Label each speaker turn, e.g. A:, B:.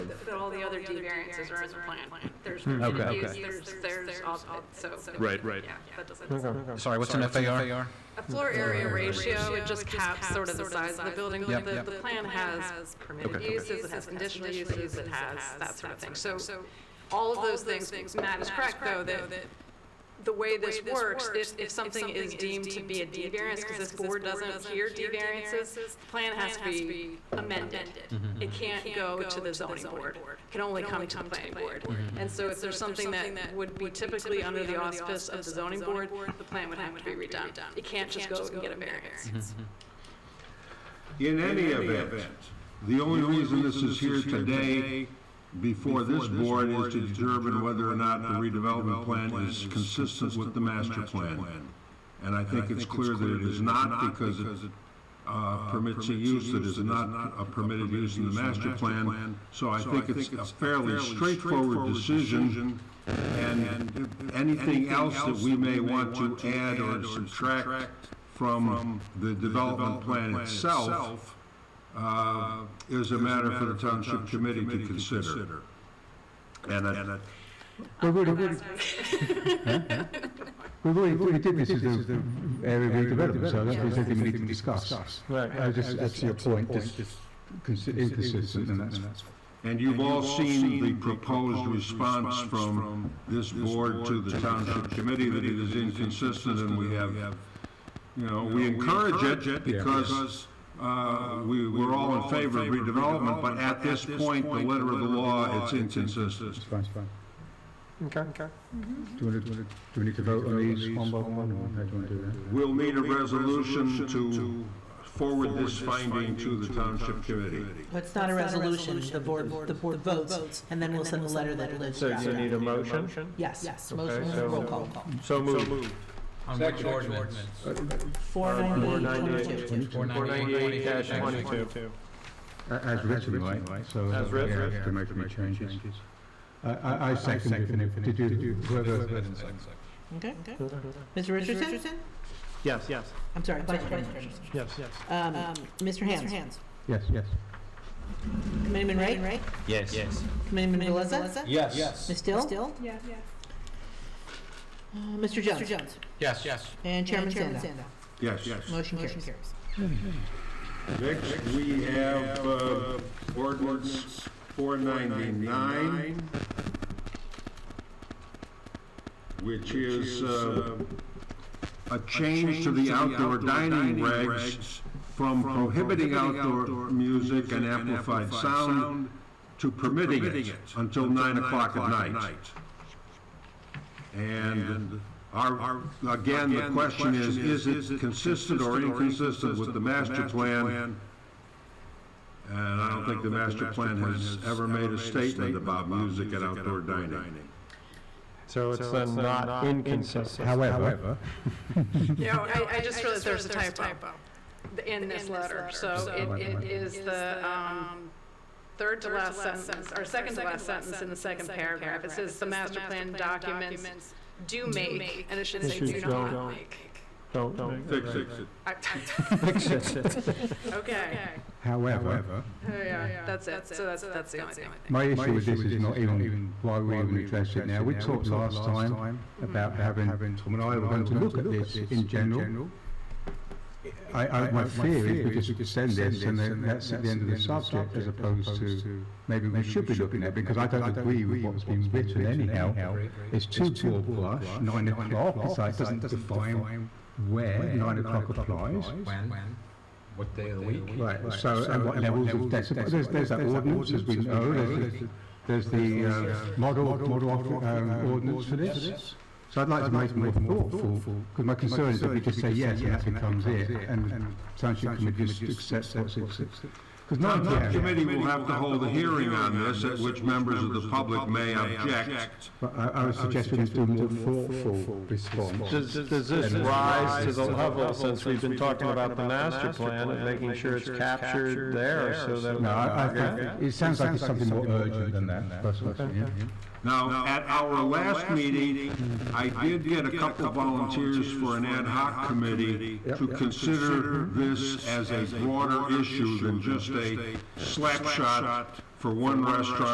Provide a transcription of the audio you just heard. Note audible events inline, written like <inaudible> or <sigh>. A: the other D variances are in the plan. There's
B: Okay.
A: permitted use,
B: Okay.
A: there's, there's, all of it, so.
B: Right, right.
A: Yeah, that doesn't.
B: Okay.
C: Sorry, what's an FAR?
A: A floor area ratio, it just caps sort of the size of the building.
C: Yep,
A: The,
C: yep.
A: the plan has permitted
B: Okay.
A: uses, it has conditional uses, it has that sort of thing. So all of those things, Matt is correct though, that the way this works, if, if something is deemed to be a D variance, because this board doesn't hear D variances, the plan has to be amended. It can't go to the zoning board, It can only come to the planning board. And so if there's something that would be typically under the auspice of the zoning board, the plan would have to be redone. It can't just go and get a variance.
D: In any event, the only reason this is here today before this board is to determine whether or not the redevelopment plan is consistent with the master plan. And I think it's clear that it is not because it uh, permits a use that is not a permitted use in the master plan. So I think it's a fairly straightforward decision. And anything else that we may want to add or subtract from the development plan itself uh, is a matter for the township committee to consider. And I-
B: But wait, wait, But wait, what we did, this is the area redevelopment, so that's what we need to discuss. Right. I just, that's your point, this is consi- inconsistent, and that's,
D: and you've all seen the proposed response from this board to the township committee that it is inconsistent and we have, you know, we encourage it because uh, we, we're all in favor of redevelopment, but at this point, the letter of the law, it's inconsistent.
B: it's fine, it's fine. Okay, okay. Do we, do we need to vote on these one by one, or how do you want to do that?
D: We'll need a resolution to forward this finding to the township committee.
E: But it's not a resolution, the board, the board votes, and then we'll send a letter that lives
F: So
E: throughout.
F: you need a motion?
E: Yes, yes, motion,
F: so- uh,
E: roll call.
F: So moved.
C: On which ordinance?
E: Four
F: Uh,
E: ninety-eight, twenty-two.
F: 498-22.
B: A- As written, right, so.
F: As
B: uh,
F: writ-
B: yeah,
F: writ-
B: have To make any changes. I, I, I second it, did you, did you, whoever,
E: Okay, okay. Mr. Richardson?
F: Yes, yes,
E: I'm sorry, Vice President Richardson.
F: yes, yes.
E: Um, Mr. Hands.
B: yes, yes.
E: Committeeman Wright?
C: Yes. Yes.
E: Committeeman Galeza?
C: Yes. Yes.
E: Ms. Still? Still?
G: Yeah, yeah.
E: Mr. Uh, Jones? Mr. Jones.
C: Yes, yes.
E: And Chairman Sando.
D: Yes, yes.
E: Motion carries.
D: Next, we have uh, ordinance 499, which is uh, a change to the outdoor dining regs from prohibiting outdoor music and amplified sound to permitting it until 9 o'clock at night. And our, again, the question is, is it consistent or inconsistent with the master plan? And I don't think the master plan has ever made a statement about music and outdoor dining.
F: So it's then not inconsistent.
B: However,
A: No, I, I just realized there's a typo in this letter, so it, it is the, um, third to last sentence, or second to last sentence in the second paragraph. It says the master plan documents do make, and it should say do
F: Issues
A: not
F: don't-
A: make.
F: Don't, don't.
D: Fix it.
A: I-
F: <laughs> Fix it.
A: <laughs> Okay,
B: however,
A: yeah, that's it, so that's, that's the only thing.
B: My issue with this is not even why we even address it now. We talked last time about having, Tom and I were going to look at this in general. I, I, my fear is we just send this and then that's at the end of the subject as opposed to, maybe we should be looking at, because I don't agree with what's been written anyhow. It's two broad brush, nine o'clock, it's like, it doesn't define where nine o'clock applies.
C: When? When? What day of the week?
B: Right, so at what levels of decibel, there's, there's that ordinance, as we know, there's the, there's the uh, model, model of- um, ordinance for this. So I'd like to make it more thoughtful, because my concern is that we just say yes, and that becomes it, and township committee just accepts what's Because
D: The
B: nine
D: township
B: PM,
D: committee will have to hold a hearing on this, at which members of the public may object.
B: but I, I would suggest we just do a more thoughtful response.
F: Does, does this rise to the level, since we've been talking about the master plan, of making sure it's captured there so that.
B: No, I, I think, it sounds like it's something more urgent than that, that's what I'm saying, yeah.
D: Now, at our last meeting, I did get a couple volunteers for an ad hoc committee to consider this as a broader issue than just a slap shot for one restaurant